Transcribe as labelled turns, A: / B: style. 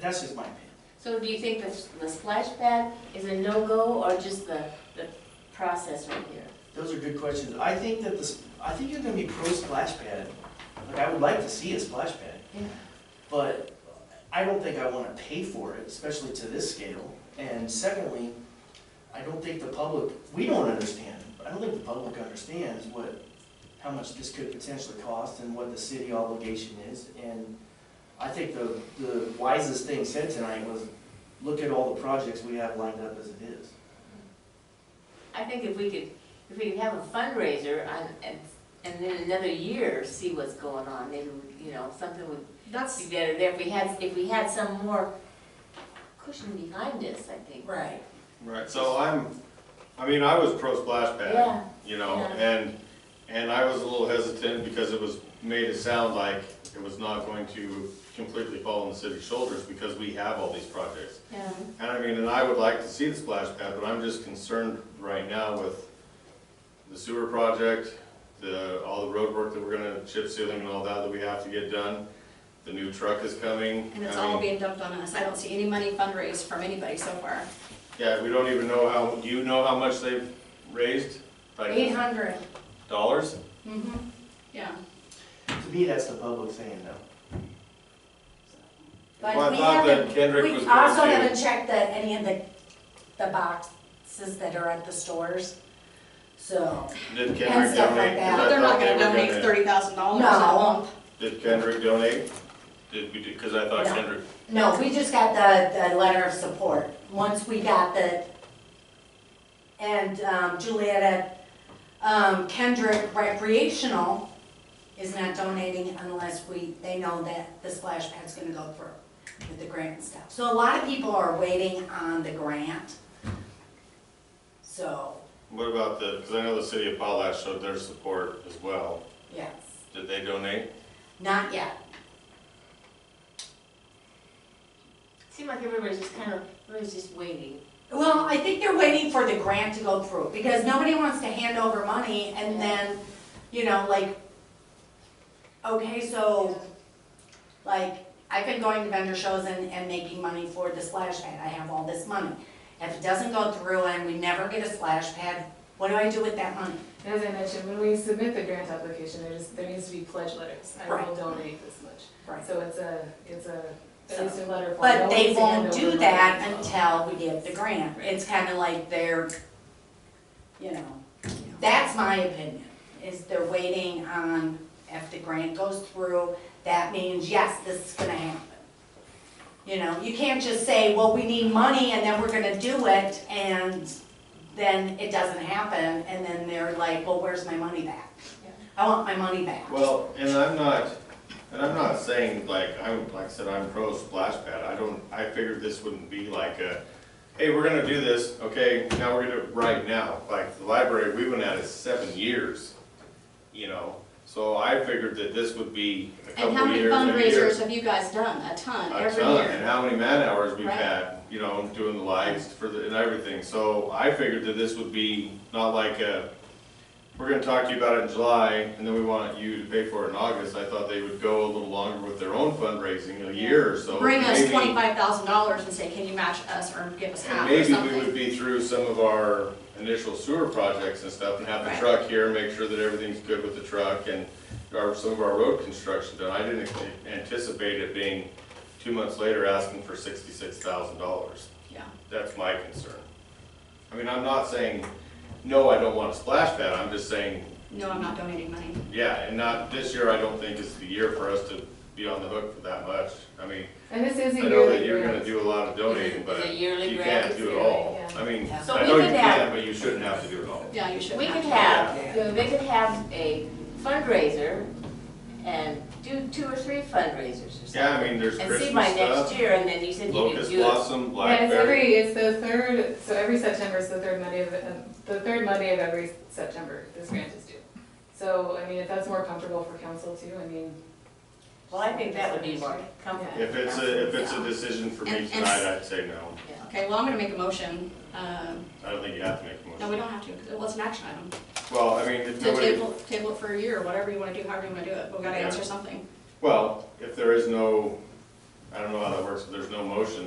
A: that's just my opinion.
B: So do you think the, the splash pad is a no-go or just the, the process right here?
A: Those are good questions. I think that this, I think you're gonna be pro splash pad. Like, I would like to see a splash pad.
B: Yeah.
A: But I don't think I wanna pay for it, especially to this scale. And secondly, I don't think the public, we don't understand, I don't think the public understands what, how much this could potentially cost and what the city obligation is. And I think the, the wisest thing said tonight was, look at all the projects we have lined up as it is.
B: I think if we could, if we could have a fundraiser on, and, and then another year, see what's going on, maybe, we- you know, something would be
C: That's,
B: better there. If we had, if we had some more cushion behind us, I think.
C: right.
D: Right, so I'm, I mean, I was pro splash
B: Yeah,
D: pad, you know,
B: yeah.
D: and, and I was a little hesitant because it was, made it sound like it was not going to completely fall on the city's shoulders because we have all these projects.
B: Yeah.
D: And I mean, and I would like to see the splash pad, but I'm just concerned right now with the sewer project, the, all the road work that we're gonna chip sealing and all that that we have to get done. The new truck is coming.
C: And it's
D: I
C: all
D: mean,
C: being dumped on us. I don't see any money fundraised from anybody so far.
D: Yeah, we don't even know how, do you know how much they've raised? Like-
C: Eight hundred.
D: Dollars?
C: Mm-hmm. Yeah.
A: To me, that's the public saying no.
E: But
D: Well, I
E: we
D: thought that
E: haven't-
D: Kendrick was
E: We
D: going
E: also
D: to-
E: haven't checked that any of the, the boxes that are at the stores, so.
D: Did
E: And
D: Kendrick
E: stuff like
D: donate? 'Cause
E: that.
D: I
C: But they're not
D: thought they
C: gonna
D: were
C: donate
D: gonna-
C: thirty thousand dollars in a
E: No.
C: month.
D: Did Kendrick donate? Did we, because I thought
E: No.
D: Kendrick,
E: No, we just got the, the letter of support. Once we got the, and um, Juliet, um, Kendrick Recreational is not donating unless we, they know that the splash pad's gonna go through with the grant and stuff. So a lot of people are waiting on the grant. So,
D: what about the, because I know the city of Potlatch showed their support as well.
E: yes,
D: Did they donate?
E: not yet.
B: Seemed like everybody's just kind of, everybody's just waiting.
E: Well, I think they're waiting for the grant to go through, because nobody wants to hand over money and then, you know, like, okay, so, like, I've been going to vendor shows and, and making money for the splash pad, I have all this money. If it doesn't go through and we never get a splash pad, what do I do with that money?
F: As I mentioned, when we submit the grant application, there's, there needs to be pledge letters. I will
E: Right.
F: donate this much.
E: Right.
F: So it's a, it's a,
E: So-
F: it's a letter form.
E: But
F: No
E: they
F: one's hand
E: won't
F: over
E: do
F: money.
E: that until we get the grant, it's kinda like they're, you know, that's my opinion, is they're waiting on, if the grant goes through, that means, yes, this is gonna happen. You know, you can't just say, well, we need money and then we're gonna do it, and then it doesn't happen, and then they're like, well, where's my money back?
F: Yeah.
E: I want my money back.
D: Well, and I'm not, and I'm not saying like, I'm, like I said, I'm pro splash pad. I don't, I figured this wouldn't be like a, hey, we're gonna do this, okay, now we're gonna, right now. Like the library, we've been at it seven years, you know? So I figured that this would be a couple years.
C: And how many
D: a year.
C: fundraisers have you guys done? A ton,
D: a
C: every
D: ton,
C: year.
D: and how many man hours we've
C: Right.
D: had, you know, doing the lights for the, and everything, so I figured that this would be not like a, we're gonna talk to you about it in July, and then we want you to pay for it in August, I thought they would go a little longer with their own fundraising, a year or so.
C: Bring us
D: maybe-
C: twenty-five thousand dollars and say, can you match us or give us
D: And
C: half or
D: maybe we would
C: something?
D: be through some of our initial sewer projects and stuff, and have the
C: Right.
D: truck here, make sure that everything's good with the truck, and our, some of our road construction done, I didn't anticipate it being two months later asking for sixty-six thousand dollars.
C: Yeah.
D: That's my concern. I mean, I'm not saying, no, I don't want a splash pad, I'm just saying,
C: No, I'm not donating money.
D: yeah, and not, this year I don't think is the year for us to be on the hook for that much. I mean,
F: And this is a
D: I
F: yearly
D: know that you're gonna
F: grant.
D: do a lot of donating,
B: Is
D: but
B: it yearly
D: you
B: grant?
D: can't
B: It's
D: do it
B: yearly,
D: all.
F: yeah.
D: I mean,
B: So
D: I
B: we
D: know you
B: could have-
D: can, but you shouldn't have to do it all.
C: Yeah, you should.
B: We could
C: have.
B: have, you know, they could have a fundraiser and do two or three fundraisers or something.
D: Yeah, I mean, there's
B: And see by
D: Christmas
B: next
D: stuff,
B: year, and then you said you could
D: locust
B: do it.
D: blossom,
F: Yeah, it's
D: blackberry.
F: every, it's the third, so every September is the third Monday of, um, the third Monday of every September, this grant is due. So, I mean, if that's more comfortable for council too, I mean.
B: Well, I think that would be more comfortable.
D: If it's a, if it's a decision for me
C: And- and-
D: tonight, I'd say no.
C: Okay, well, I'm gonna make a motion. Um,
D: I don't think you have to make a
C: No, we
D: motion.
C: don't have to, because it was an action item.
D: Well, I mean, if
C: To
D: nobody,
C: table, table it for a year, whatever you wanna do, however you wanna do it, but we gotta
D: Yeah.
C: answer something.
D: well, if there is no, I don't know how that works, but there's no motion,